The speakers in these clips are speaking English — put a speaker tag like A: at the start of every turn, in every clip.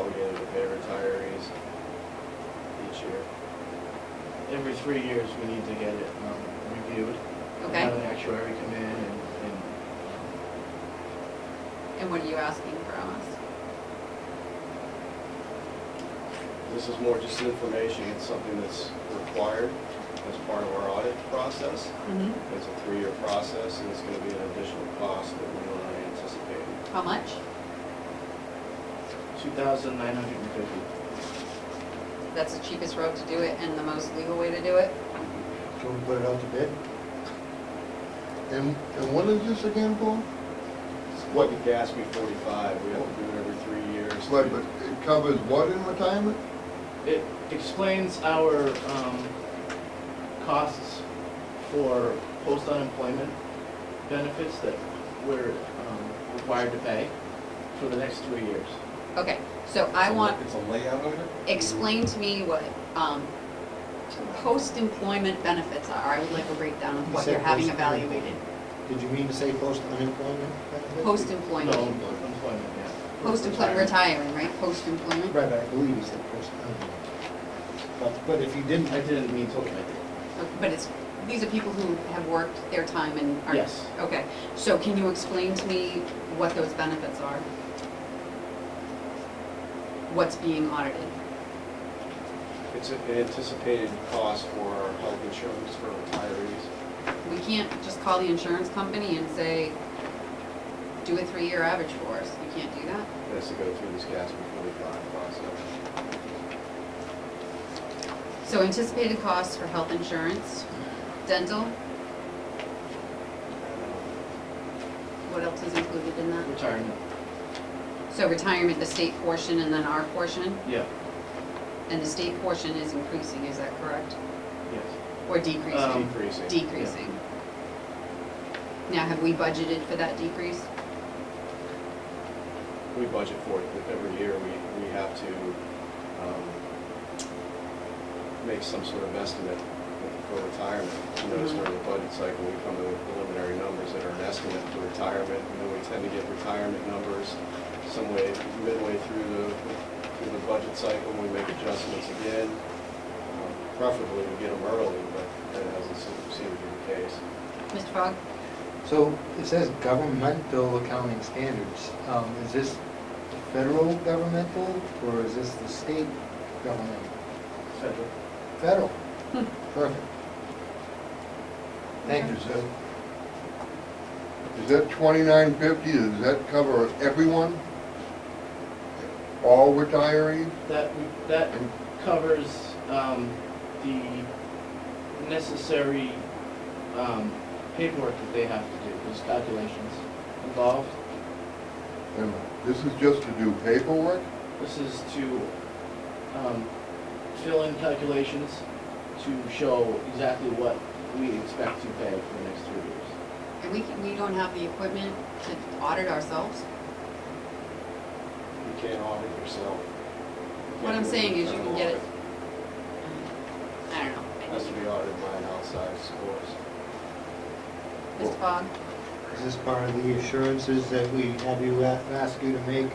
A: pay retirees each year. Every three years, we need to get it um, reviewed.
B: Okay.
A: Have an actuary come in and, and
B: And what are you asking from us?
A: this is more just information, it's something that's required as part of our audit process. It's a three-year process, and it's gonna be an additional cost that we don't anticipate.
B: How much?
A: Two thousand nine hundred and fifty.
B: That's the cheapest road to do it and the most legal way to do it?
C: So we put it out to bid? And, and what is this again, Paul?
A: What did you ask me, forty-five, we have to do it every three years.
C: Right, but it covers what in retirement?
A: It explains our, um, costs for post-unemployment benefits that we're, um, required to pay for the next three years.
B: Okay, so I want,
D: It's a layout of it?
B: explain to me what, um, post-employment benefits are. I would like a breakdown of
E: You
B: what
E: said
B: you're having
E: post-employment.
B: evaluated.
E: Did you mean to say post-unemployment benefit?
A: No,
B: Post-employment,
A: employment, yeah.
B: post-employment, retiring, right? Post-employment?
E: Right, I believe you said post-unemployment. But, but if you didn't,
A: I didn't mean to, I did.
B: Okay, But it's, these are people who have worked their time and are.
A: Yes.
B: Okay, so can you explain to me what those benefits are? What's being audited?
A: It's an anticipated cost for our health insurance for retirees.
B: We can't just call the insurance company and say, do a three-year average for us. You can't do that.
A: It has to go through this GASP 45 process.
B: So anticipated costs for health insurance, dental, what else is included in that?
A: Retirement,
B: So retirement, the state portion and then our portion,
A: yeah,
B: and the state portion is increasing, is that correct?
A: yes.
B: Or decreasing?
A: Um, Decreasing.
B: decreasing. Now, have we budgeted for that decrease?
A: We budget for it, but every year we, we have to um, make some sort of estimate for retirement. You notice
B: Mm-hmm.
A: during the budget cycle, we come to preliminary numbers that are an estimate for retirement, and then we tend to get retirement numbers some way, midway through the, through the budget cycle, we make adjustments again. Um, Preferably we get them early, but that hasn't se- seemed to be the case.
B: Mr. Fogg?
E: so it says governmental accounting standards. Um, is this federal governmental or is this the state governmental?
A: Federal.
E: Federal. Perfect. Thank you,
C: Is that, is that twenty-nine fifty, does that cover everyone? All retirees?
A: That, that covers um, the necessary um, paperwork that they have to do, those calculations involved.
C: And this is just to do paperwork?
A: This is to um, fill in calculations to show exactly what we expect to pay for the next three years.
B: And we, can- we don't have the equipment to audit ourselves?
D: You can't audit yourself.
B: What I'm saying is you can get it,
D: It
B: I don't
A: Has to
B: know.
A: be audited by an outside scores.
B: Mr. Fogg?
E: Is this part of the assurances that we have you, a- ask you to make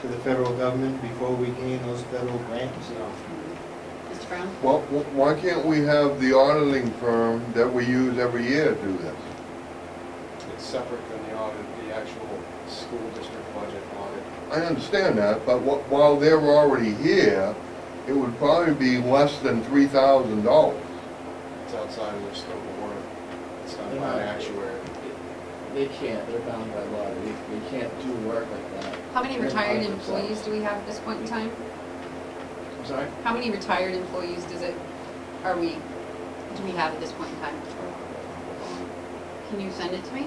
E: to the federal government before we gain those federal grants?
A: No.
B: Mr. Brown?
C: Well, why can't we have the auditing firm that we use every year do this?
A: It's separate from the audit, the actual school district budget audit.
C: I understand that, but wh- while they're already here, it would probably be less than three thousand dollars.
A: It's outside of their scope of work. It's
D: done by an actuary.
A: They can't, they're bound by law, they, they can't do work like that.
B: How many
A: They're
B: retired
A: bound themselves.
B: employees do we have at this point in time?
A: I'm sorry?
B: How many retired employees does it, are we, do we have at this point in time? Can you send it to me?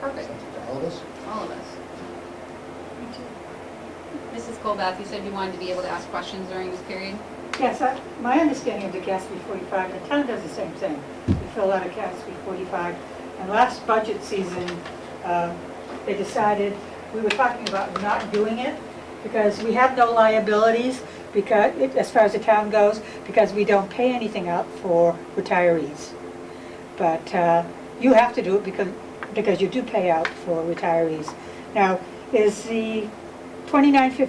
B: Perfect,
E: All of us?
B: all of us. Mrs. Colbath, you said you wanted to be able to ask questions during this period?
F: Yes, I- my understanding of the GASB 45, the town does the same thing. We fill out a GASB 45, and last budget season, um, they decided, we were talking about not doing it because we have no liabilities because, as far as the town goes, because we don't pay anything out for retirees. But uh, you have to do it because, because you do pay out for retirees. Now, is the 2950